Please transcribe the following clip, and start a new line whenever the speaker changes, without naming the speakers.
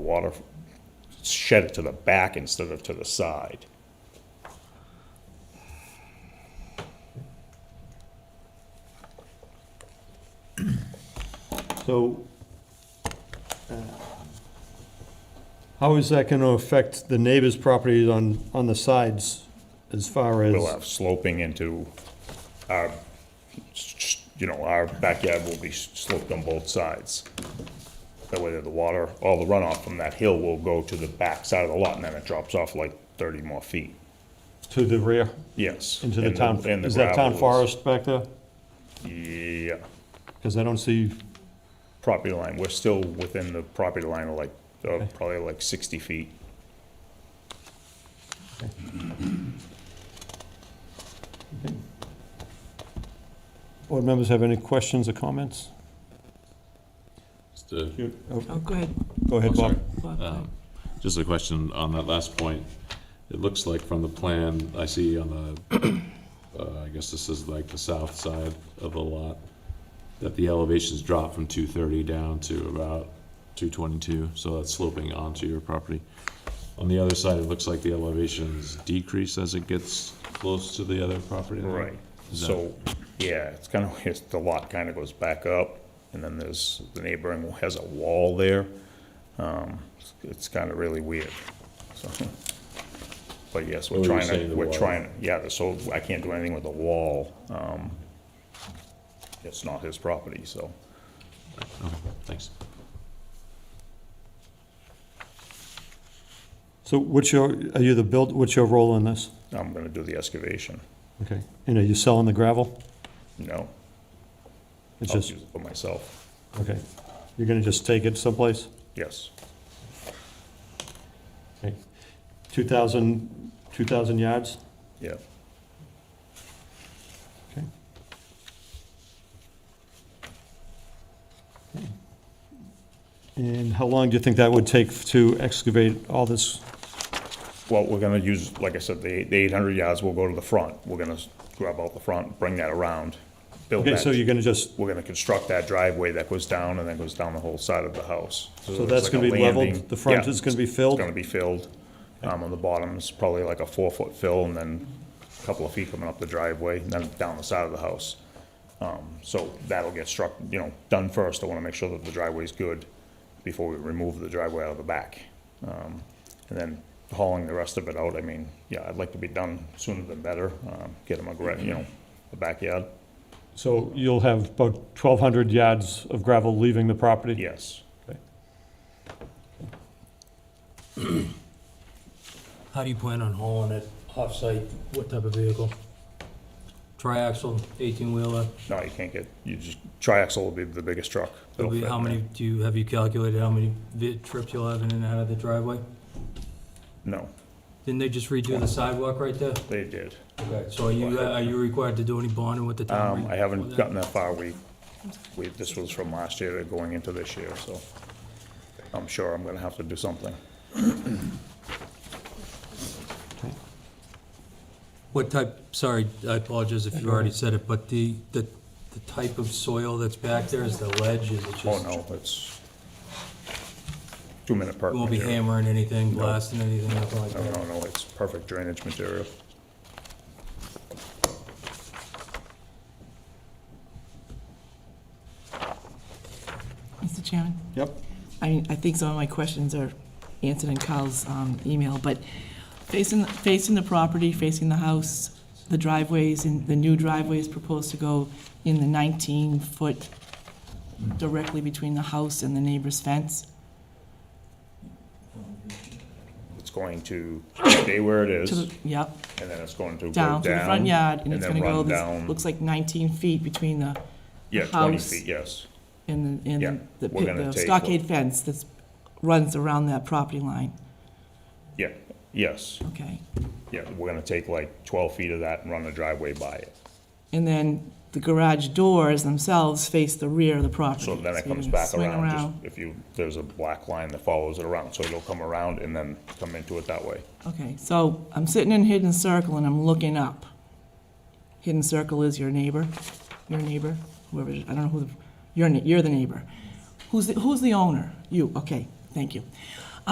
the water, shed it to the back instead of to the side.
So, uh, how is that gonna affect the neighbors' properties on, on the sides as far
We'll uh,
as,
have sloping into our, you know, our backyard will be sloped on both sides. That way the water, all the runoff from that hill will go to the back side of the lot and then it drops off like thirty more feet.
to the rear,
Yes.
into the
and
town,
and the
is that town
gravel is-
forest back there?
Yeah,
Because I don't see,
property line, we're still within the property line of like, uh, probably like sixty feet.
board members have any questions or comments?
Just a-
You- oh,
Oh, go ahead.
Go ahead,
I'm sorry.
Bob.
Bob, go ahead.
Um, Just a question on that last point. It looks like from the plan, I see on the, uh, I guess this is like the south side of the lot, that the elevation's dropped from 230 down to about 222, so that's sloping onto your property. On the other side, it looks like the elevation's decrease as it gets close to the other property line.
Right,
Is that-
so, yeah, it's kind of, it's, the lot kind of goes back up, and then there's, the neighboring has a wall there. Um, it's- It's kind of really weird, so. But yes, we're
What were you
trying
saying,
to,
the
we're
wall?
trying, yeah, so I can't do anything with the wall. Um, It's not his property, so.
Okay, Thanks.
So what's your, are you the build, what's your role in this?
I'm gonna do the excavation,
Okay, and are you selling the gravel?
no,
It's
I'll
just,
use it for myself,
okay, you're gonna just take it someplace?
yes,
Okay, 2,000, 2,000 yards?
yeah.
Okay. And how long do you think that would take to excavate all this?
Well, we're gonna use, like I said, the, the eight hundred yards will go to the front, we're gonna s- grab out the front, bring that around, build
Okay,
that.
so you're gonna just,
We're gonna construct that driveway that goes down and then goes down the whole side of the house.
so
it's
that's
like
gonna
a
be
landing.
leveled, the front
Yeah,
is gonna be
It's
filled?
gonna be filled, um, on the bottom, it's probably like a four-foot fill and then a couple of feet coming up the driveway, and then down the side of the house. Um, so that'll get struck, you know, done first, I wanna make sure that the driveway's good before we remove the driveway out of the back. Um, and then hauling the rest of it out, I mean, yeah, I'd like to be done sooner than better, um, get them a, gra- you know, a backyard,
So you'll have about 1,200 yards of gravel leaving the property?
yes.
How do you plan on hauling it off-site? What type of vehicle? Triaxle, 18-wheeler?
No, you can't get, you just, triaxle will be the biggest truck.
It'll
That'll
be-
fit
How
in there.
many, do you, have you calculated how many vi- trips you'll have in and out of the driveway?
No,
Didn't they just redo the sidewalk right there?
they did.
Okay, so are you, uh, are you required to do any bonding with the town?
Um, I haven't gotten that far. We, we, this was from last year to going into this year, so I'm sure I'm gonna have to do something.
What type, sorry, I apologize if you already said it, but the, the, the type of soil that's back there, is the ledge, is it just?
Oh, no, it's two-minute perk
You won't be
material.
hammering anything, blasting anything, nothing like
No,
that?
no, no, it's perfect drainage material.
Mr. Chairman,
Yep.
I mean, I think some of my questions are answered in Carl's um, email, but facing, facing the property, facing the house, the driveways, and the new driveway is proposed to go in the 19-foot directly between the house and the neighbor's fence.
It's going to stay where it is,
To the,
and
yep,
then it's going to go down.
down to the front yard, and it's
then
gonna go,
run
this
down-
looks like 19 feet between the,
Yeah, twenty
house.
feet, yes.
and the,
Yeah,
and the
we're gonna
the
take-
stockade fence that runs around that property line,
Yeah, yes,
okay?
yeah, we're gonna take like twelve feet of that and run the driveway by it.
And then the garage doors themselves face the rear of the property.
So then it
you're
comes
gonna
back
swing
around, just if you, there's a black line that follows it around, so it'll come around and then come into it that way.
Okay, so I'm sitting in hidden circle and I'm looking up. Hidden circle is your neighbor, your neighbor, whoever, I don't know who, the- you're, ne- you're the neighbor. Who's, the- who's the owner? You, okay, thank you.